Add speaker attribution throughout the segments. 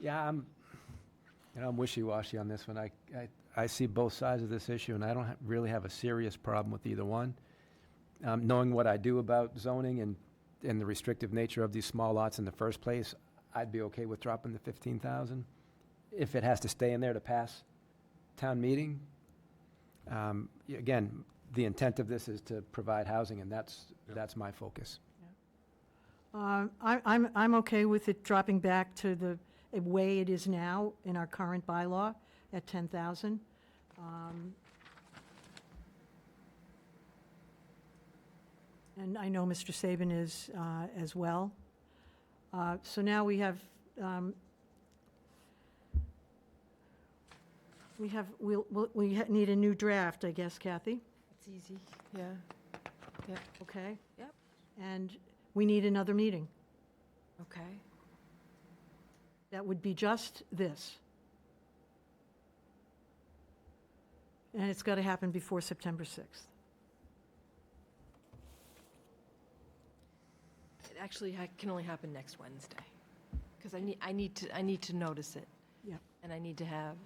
Speaker 1: Yeah, I'm, you know, I'm wishy-washy on this one. I, I, I see both sides of this issue, and I don't ha- really have a serious problem with either one. Um, knowing what I do about zoning and, and the restrictive nature of these small lots in the first place, I'd be okay with dropping the fifteen thousand if it has to stay in there to pass town meeting. Um, y- again, the intent of this is to provide housing, and that's,
Speaker 2: Yeah.
Speaker 1: that's my focus.
Speaker 3: Uh, I- I'm, I'm okay with it dropping back to the way it is now in our current bylaw at 10,000. Um, And I know Mr. Saban is uh, as well. Uh, So now we have, um, we have, we'll- we'll- we ha- need a new draft, I guess, Kathy,
Speaker 4: It's easy, yeah.
Speaker 3: okay?
Speaker 4: Yep.
Speaker 3: And we need another meeting.
Speaker 4: Okay.
Speaker 3: that would be just this. And it's got to happen before September 6th.
Speaker 4: It actually ha- can only happen next Wednesday, because I need, I need to, I need to notice it.
Speaker 3: Yep.
Speaker 4: And I need to have,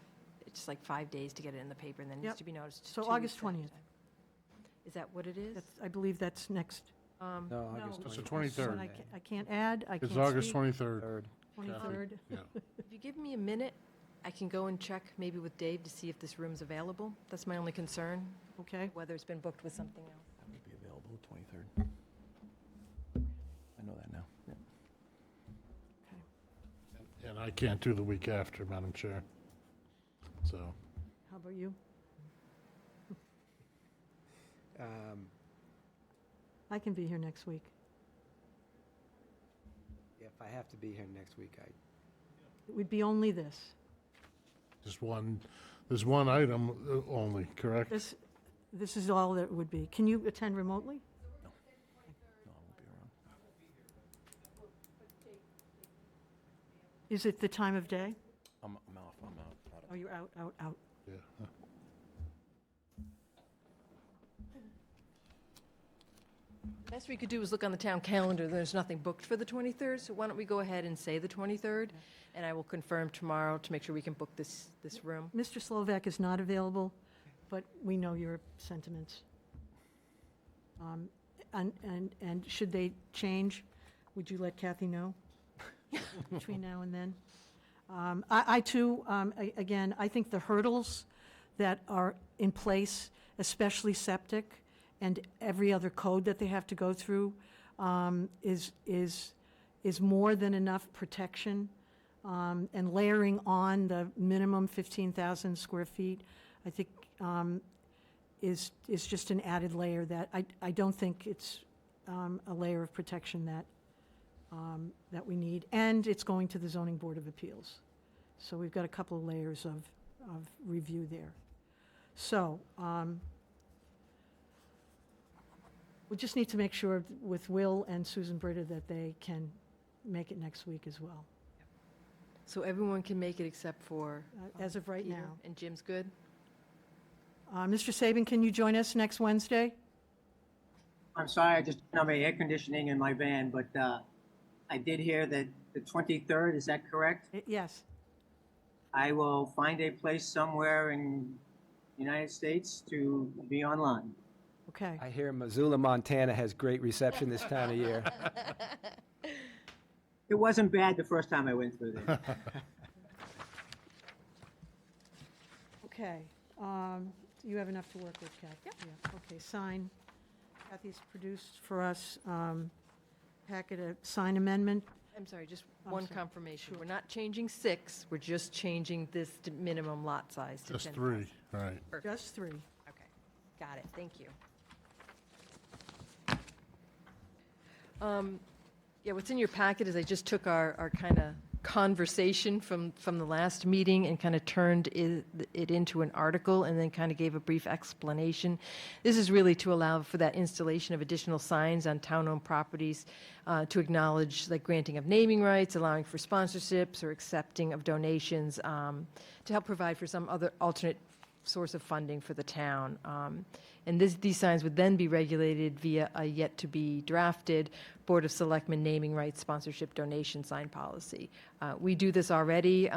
Speaker 4: it's just like five days to get it in the paper, and then it
Speaker 3: Yep.
Speaker 4: needs to be noticed.
Speaker 3: So
Speaker 4: two weeks
Speaker 3: August
Speaker 4: ahead of
Speaker 3: 20th.
Speaker 4: time. Is that what it is?
Speaker 3: That's, I believe that's next.
Speaker 4: Um,
Speaker 1: No,
Speaker 3: No,
Speaker 1: August
Speaker 2: It's the
Speaker 1: 21st.
Speaker 3: So
Speaker 2: 23rd.
Speaker 3: I ca- I can't add, I can't
Speaker 2: It's
Speaker 3: speak.
Speaker 2: August 23rd.
Speaker 1: Third.
Speaker 3: 23rd.
Speaker 4: If you give me a minute, I can go and check maybe with Dave to see if this room's available. That's my only concern,
Speaker 3: Okay,
Speaker 4: whether it's been booked with something else.
Speaker 5: I would be available the 23rd. I know that now.
Speaker 2: And I can't do the week after, Madam Chair. So,
Speaker 3: how about you?
Speaker 1: Um,
Speaker 3: I can be here next week.
Speaker 1: If I have to be here next week, I,
Speaker 3: It would be only this.
Speaker 2: just one, there's one item uh, only, correct?
Speaker 3: This, this is all that would be. Can you attend remotely?
Speaker 5: No, I won't be around.
Speaker 3: Is it the time of day?
Speaker 5: I'm, I'm off, I'm out. out of-
Speaker 3: Oh, you're out, out, out.
Speaker 2: Yeah.
Speaker 4: Best we could do is look on the town calendar, there's nothing booked for the 23rd, so why don't we go ahead and say the 23rd? And I will confirm tomorrow to make sure we can book this, this room.
Speaker 3: Mr. Slovak is not available, but we know your sentiments. Um, And, and, and should they change, would you let Kathy know between now and then? Um, I, I too, um, a- again, I think the hurdles that are in place, especially septic and every other code that they have to go through, um, is, is, is more than enough protection um, and layering on the minimum 15,000 square feet, I think um, is, is just an added layer that, I, I don't think it's um, a layer of protection that, um, that we need. And it's going to the zoning board of appeals. So we've got a couple of layers of, of review there. So um, we just need to make sure with Will and Susan Britta that they can make it next week as well.
Speaker 4: So everyone can make it except for
Speaker 3: Uh, as of right
Speaker 4: Peter,
Speaker 3: now.
Speaker 4: and Jim's good?
Speaker 3: Uh, Mr. Saban, can you join us next Wednesday?
Speaker 6: I'm sorry, I just don't have any air conditioning in my van, but uh, I did hear that the 23rd, is that correct?
Speaker 3: Uh, Yes,
Speaker 6: I will find a place somewhere in the United States to be online.
Speaker 3: okay.
Speaker 1: I hear Missoula, Montana has great reception this time of year.
Speaker 6: It wasn't bad the first time I went through there.
Speaker 3: Okay. Um, You have enough to work with, Kathy? Yeah. Okay, sign. Kathy's produced for us um, packet of sign amendment.
Speaker 4: I'm sorry, just
Speaker 3: Oh, I'm
Speaker 4: one
Speaker 3: sorry.
Speaker 4: confirmation.
Speaker 3: Sure.
Speaker 4: We're not changing six, we're just changing this to minimum lot size to 10.
Speaker 2: Just three, right.
Speaker 3: Just three.
Speaker 4: Okay, got it, thank you. Um, Yeah, what's in your packet is I just took our, our kind of conversation from, from the last meeting and kind of turned it, it into an article and then kind of gave a brief explanation. This is really to allow for that installation of additional signs on town-owned properties uh, to acknowledge like granting of naming rights, allowing for sponsorships or accepting of donations um, to help provide for some other alternate source of funding for the town. Um, And this, these signs would then be regulated via a yet-to-be-drafted Board of Selectmen naming rights sponsorship donation sign policy. Uh, We do this already